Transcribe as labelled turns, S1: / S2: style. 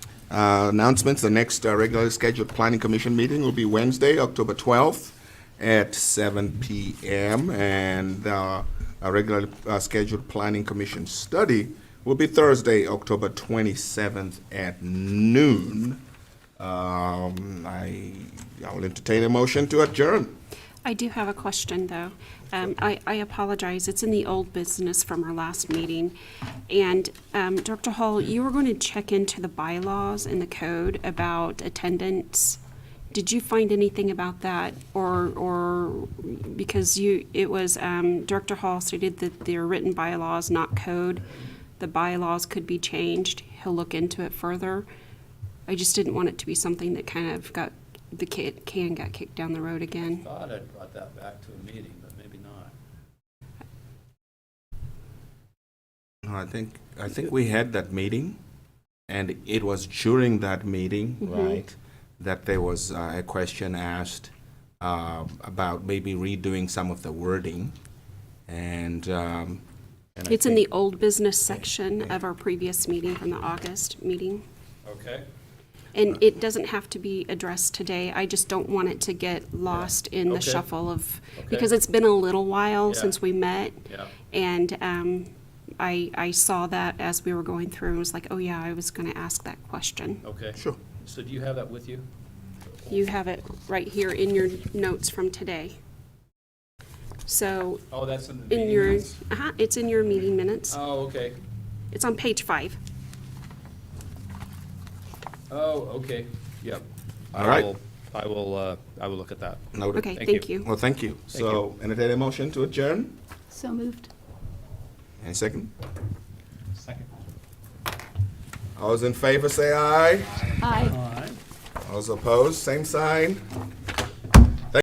S1: Uh, Announcements, the next uh, regularly scheduled planning commission meeting will be Wednesday, October 12th at 7 PM. And uh, our regularly uh, scheduled planning commission study will be Thursday, October 27th at noon. Um, I, I will entertain a motion to adjourn.
S2: I do have a question, though. Um, I I apologize, it's in the old business from our last meeting. And um, Dr. Hall, you were going to check into the bylaws and the code about attendance. Did you find anything about that? Or, or because you, it was, um, Dr. Hall stated that they're written bylaws, not code. The bylaws could be changed. He'll look into it further. I just didn't want it to be something that kind of got, the ca- can got kicked down the road again.
S3: Thought I'd brought that back to a meeting, but maybe not.
S1: No, I think, I think we had that meeting, and it was during that meeting,
S2: Mm-hmm.
S1: right, that there was uh, a question asked uh, about maybe redoing some of the wording, and. um, and I
S2: It's in
S1: think-
S2: the old business section of our previous meeting from the August meeting.
S3: Okay. Uh,
S2: And it doesn't have to be addressed today. I just don't want it to get lost in the
S3: Okay.
S2: shuffle of,
S3: Okay.
S2: because it's been a little while
S3: Yeah.
S2: since we met.
S3: Yeah.
S2: And um, I, I saw that as we were going through and was like, oh yeah, I was going to ask that question.
S3: Okay.
S1: Sure.
S3: So do you have that with you?
S2: You have it right here in your notes from today. So
S3: Oh, that's in the meeting.
S2: in your,
S3: minutes.
S2: uh it's in your meeting minutes.
S3: Oh, okay.
S2: It's on page five.
S3: Oh, okay. Yep. I
S1: All right.
S3: will- I will, uh, I will look at that.
S1: Noted.
S2: Okay,
S3: Thank
S2: thank
S3: you.
S2: you.
S1: Well, thank you.
S3: Thank
S1: So, entertain a motion to adjourn,
S4: So moved.
S1: and second,
S3: Second.
S1: all those in favor, say aye.
S4: Aye.
S3: All right.
S1: All those opposed, same sign.